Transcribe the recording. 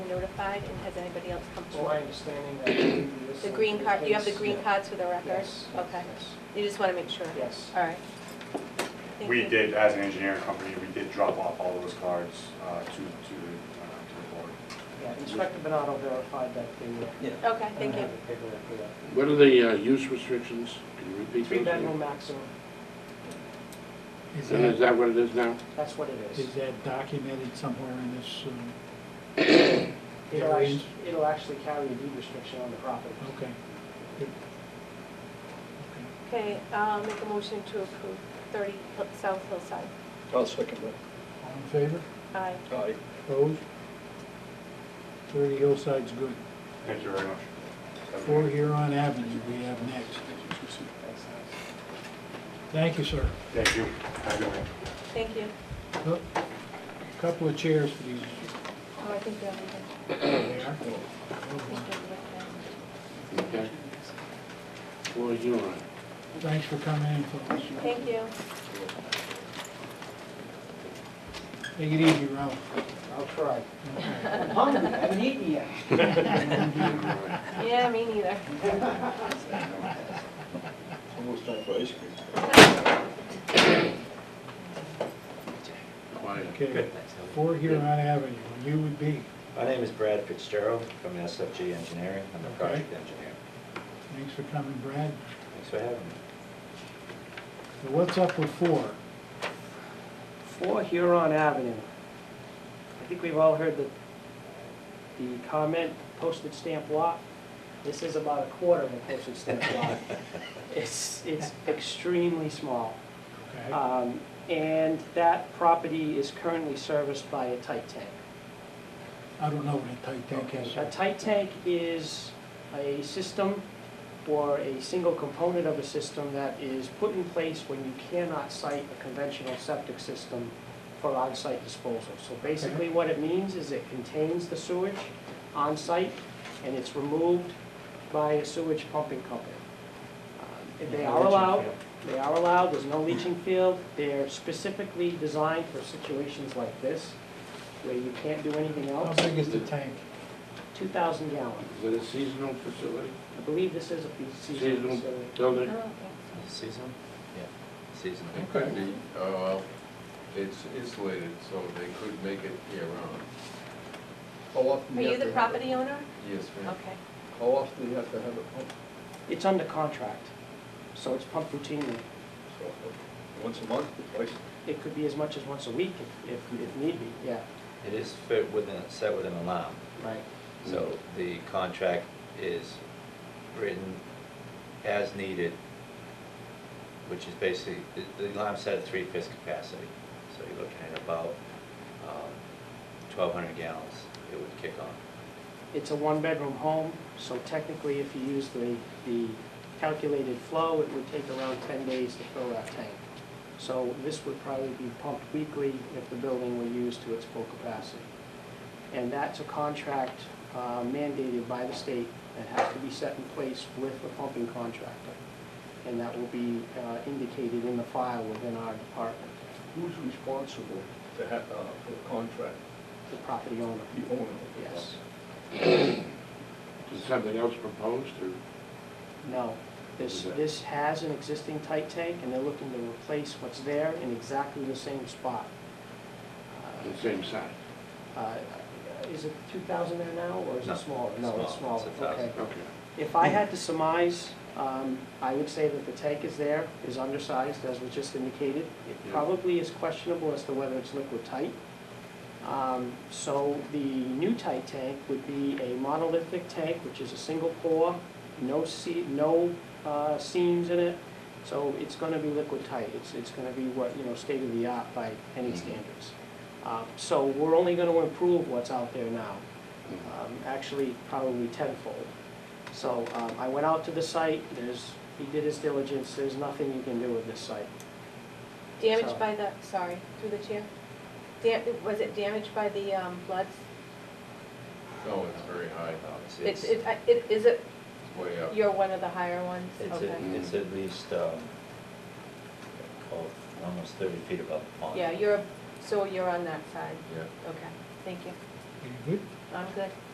notified, and has anybody else come It's my forward? understanding that maybe this. The green card, you have the green Yeah. cards for the record? Yes. Okay, yes, you just want to make sure? Yes. All right. Thank We you. did, as an engineering company, we did drop off all those cards uh, to, to, uh, Yeah, Inspector Bernardo verified that they were. Yeah. Okay, thank you. have the paperwork for that. What are the uh, use restrictions? Can you repeat Three those? bedroom again? maximum, Is And is that, that what it is now? that's what it is is. that documented somewhere in this, um, It'll variance? actually, it'll actually carry a deed restriction on the property. Okay. Good. Okay. Okay, I'll make a motion to approve 30 Hill- South Hillside. I'll second that. All in favor? Aye. Aye. Opposed? Thirty Hillside's good. thank you very much. Four Huron Avenue we have next. That's nice. Thank you, sir. Thank you. Have a good night. Thank you. Look, Couple of chairs for these. Oh, I think they're okay. There I they are. think they're Okay. Well, you're on. Thanks for coming in, folks. okay. Thank you. Take it easy, Ralph. I'll try. I'm hungry, I haven't eaten yet. Yeah, me neither. Almost time for ice cream. Quiet. Okay, Four Huron Avenue, you would be. My name is Brad Fitzgerald from SFG Engineering. I'm a Okay. project engineer. Thanks for coming, Brad. Thanks for having me. So What's up with four? For Huron Avenue. I think we've all heard the, the comment, postage stamp lot. This is about a quarter of a postage stamp lot. It's, it's extremely small. Okay, Um, And that property is currently serviced by a tight tank. I don't know what a tight tank is. A tight tank is a system or a single component of a system that is put in place when you cannot site a conventional septic system for on-site disposal. So basically what it means is it contains the sewage on-site and it's removed by a sewage pumping company. Um, They are allowed, they are allowed, there's no leaching field. They're specifically designed for situations like this where you can't do anything How else. big is the tank? 2,000 gallon. Is it a seasonal facility? I believe this is a piece of Seasonal seasonal, so I building? don't think Season? Yeah, season. Okay. Could be, oh, well, it's insulated, so they could make it year round. How often so. Are do you have the to have it? property owner? Yes, ma'am. Okay. How often do you have to have it pumped? it's under contract, so it's pumped routinely. So, Once a month, twice? It could be as much as once a week if, if, if need be, yeah, It is fit within, set with an alarm. right. So the contract is written as needed, which is basically, the- the alarm set at three-fifths capacity. So you're looking at about um, 1,200 gallons it would kick on. It's a one-bedroom home, so technically if you use the, the calculated flow, it would take around 10 days to fill that tank. So this would probably be pumped weekly if the building were used to its full capacity. And that's a contract uh, mandated by the state that has to be set in place with the pumping contractor. And that will be uh, indicated in the file within our department, Who's responsible to have, uh, for the contract, the property owner, the owner? of the yes. Is something else proposed or? No, this, Okay. this has an existing tight tank, and they're looking to replace what's there in exactly the same spot. The same size. Uh, uh, Is it two thousand there now, or is No, it smaller? No, it's small. smaller, It's a okay. 1,000. Okay. If I had to surmise, um, I would say that the tank is there, is undersized, as was just indicated. It Yeah. probably is questionable as to whether it's liquid tight. Um, So the new tight tank would be a monolithic tank, which is a single pour, no se, no uh, seams in it. So it's gonna be liquid tight. It's, it's gonna be what, you know, state of the art by any Mhm. standards. Uh, So we're only gonna improve what's out there now Mhm. um, actually probably tenfold. So um, I went out to the site, there's, he did his diligence, there's nothing you can do with this site. So- Damaged by the, sorry, through the chair. Dam, was it damaged by the um, floods? No, Oh, it's very high, No, it's- It's, it, I- it, is it, it's way up. you're one of the higher ones? It's, Okay. a- it's at least, um, oh, almost thirty feet above the pond. Yeah, you're, so you're on that side. Yeah. Okay, thank you. Pretty good. I'm good.